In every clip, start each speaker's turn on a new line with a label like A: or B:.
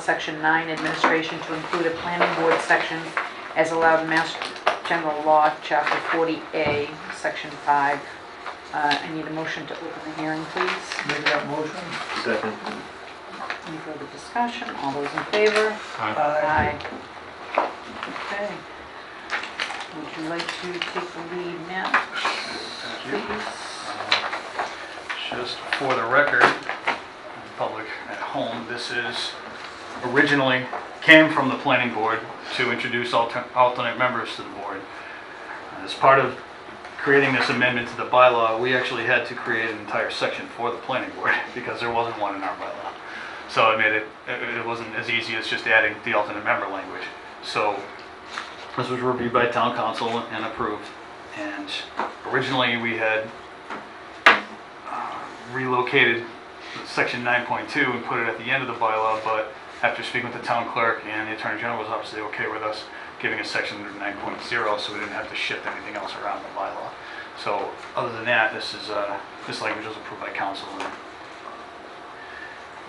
A: Section 9, Administration to include a planning board section as allowed in Mass General Law, Chapter 40A, Section 5. Uh, I need a motion to open the hearing, please.
B: Make that motion.
C: Second.
A: Any further discussion? All those in favor?
C: Aye.
B: Aye.
A: Okay. Would you like to take the lead now,
D: Thank you.
A: please?
D: Just for the record, the public at home, this is originally, came from the planning board to introduce alter- alternate members to the board. As part of creating this amendment to the bylaw, we actually had to create an entire section for the planning board because there wasn't one in our bylaw. So I made it, it it wasn't as easy as just adding the alternate member language. So this was reviewed by town council and approved. And originally, we had uh, relocated section 9.2 and put it at the end of the bylaw, but after speaking with the town clerk and the attorney general's office, they okay with us giving a section under 9.0, so we didn't have to shift anything else around the bylaw. So other than that, this is, uh, this language was approved by council and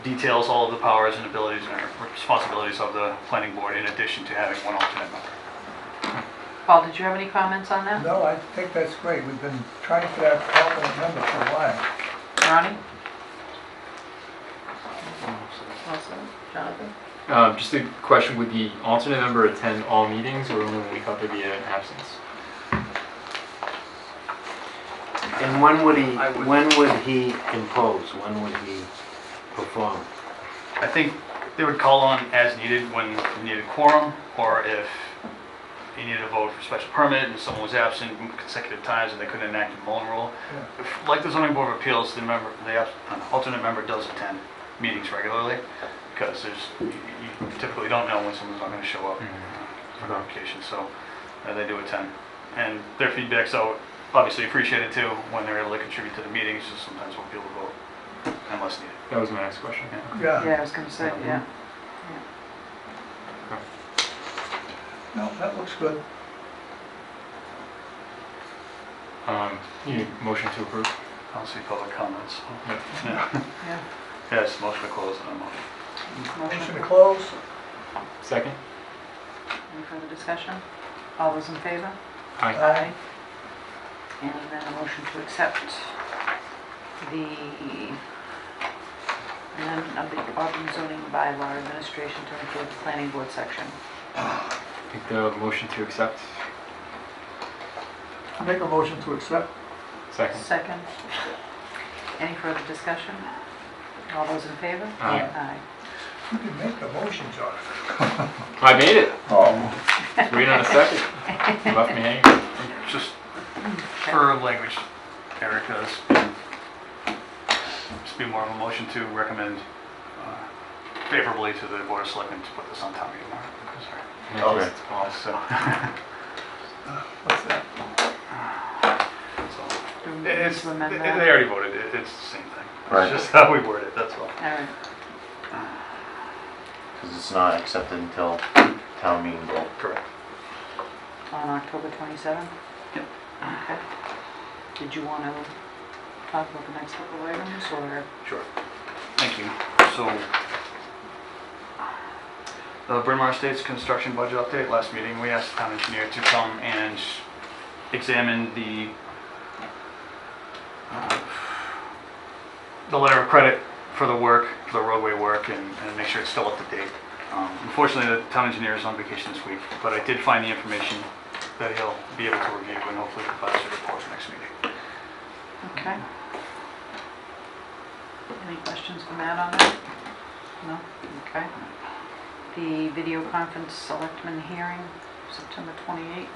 D: details all of the powers and abilities and responsibilities of the planning board in addition to having one alternate member.
A: Paul, did you have any comments on that?
B: No, I think that's great. We've been trying for that alternate member for a while.
A: Ronnie? Wilson? Jonathan?
C: Um, just a question, would the alternate member attend all meetings or only when we thought there'd be an absence?
E: And when would he, when would he impose, when would he perform?
D: I think they would call on as needed when you needed quorum, or if you needed a vote for special permit and someone was absent consecutive times and they couldn't enact the Mullen rule. If- Like the zoning board of appeals, the member, the abs- an alternate member does attend meetings regularly, because there's, you you typically don't know when someone's not gonna show up for notification, so uh, they do attend. And their feedback's out, obviously appreciated too, when they're able to contribute to the meetings, just sometimes won't be able to vote unless needed.
C: That was my next question.
B: Yeah,
A: Yeah, I was gonna say, yeah.
B: no, that looks good.
C: Um, you need a motion to approve?
D: I don't see public comments.
C: No.
D: No.
A: Yeah.
D: Yes, motion to close, and a motion.
B: Motion
A: Motion.
B: to close?
C: Second?
A: Any further discussion? All those in favor?
C: Aye.
B: Aye.
A: And then a motion to accept the, amendment of the Auburn zoning bylaw administration to include the planning board section.
C: Make the motion to accept?
B: Make a motion to accept?
C: Second?
A: Second. Any further discussion? All those in favor?
C: Aye.
A: Aye.
B: You can make the motion, Jonathan.
C: I made it!
B: Oh.
C: Three on a second. You left me hanging.
D: Just for language, Eric does. Just be more of a motion to recommend uh, favorably to the board of selectmen to put this on town meeting warrant. Sorry.
C: Okay.
D: So,
B: What's that?
D: so,
A: Do we need
D: it's,
A: to
D: they
A: amend
D: they
A: that?
D: already voted, It- it's the same thing.
F: Right.
D: It's just how we word it, that's all.
A: All right.
F: Because it's not accepted until town meeting vote.
D: Correct.
A: On October 27th?
D: Yep.
A: Okay. Did you want to talk about the next couple items, or?
D: Sure. Thank you. So, the Bryn Mawr Estates construction budget update, last meeting, we asked the town engineer to come and examine the, uh, the letter of credit for the work, for the roadway work, and, and make sure it's still up to date. Um, Unfortunately, the town engineer is on vacation this week, but I did find the information that he'll be able to review and hopefully provide us a report for next meeting.
A: Okay. Any questions for Matt on that? No? Okay. The video conference selectmen hearing, September 28th.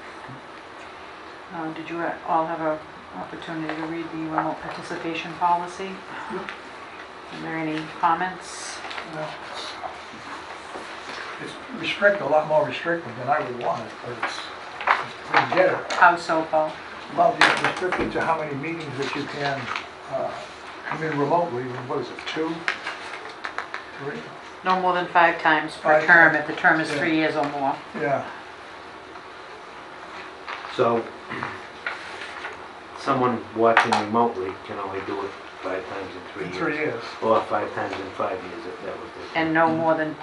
A: Uh, Did you all have an opportunity to read the remote participation policy? Are there any comments?
B: No. It's restrict, a lot more restrictive than I would want it, but it's, it's pretty generous.
A: How so, Paul?
B: Well, it's restricted to how many meetings that you can uh, come in remotely, what is it, two? Three?
A: No more than five times per
B: Five
A: term if
B: times.
A: the term is three years or more.
B: Yeah,
E: So, someone watching remotely can only do it five times in three
B: in
E: years.
B: three years.
E: Or five times in five years, if that was the.
A: And no more than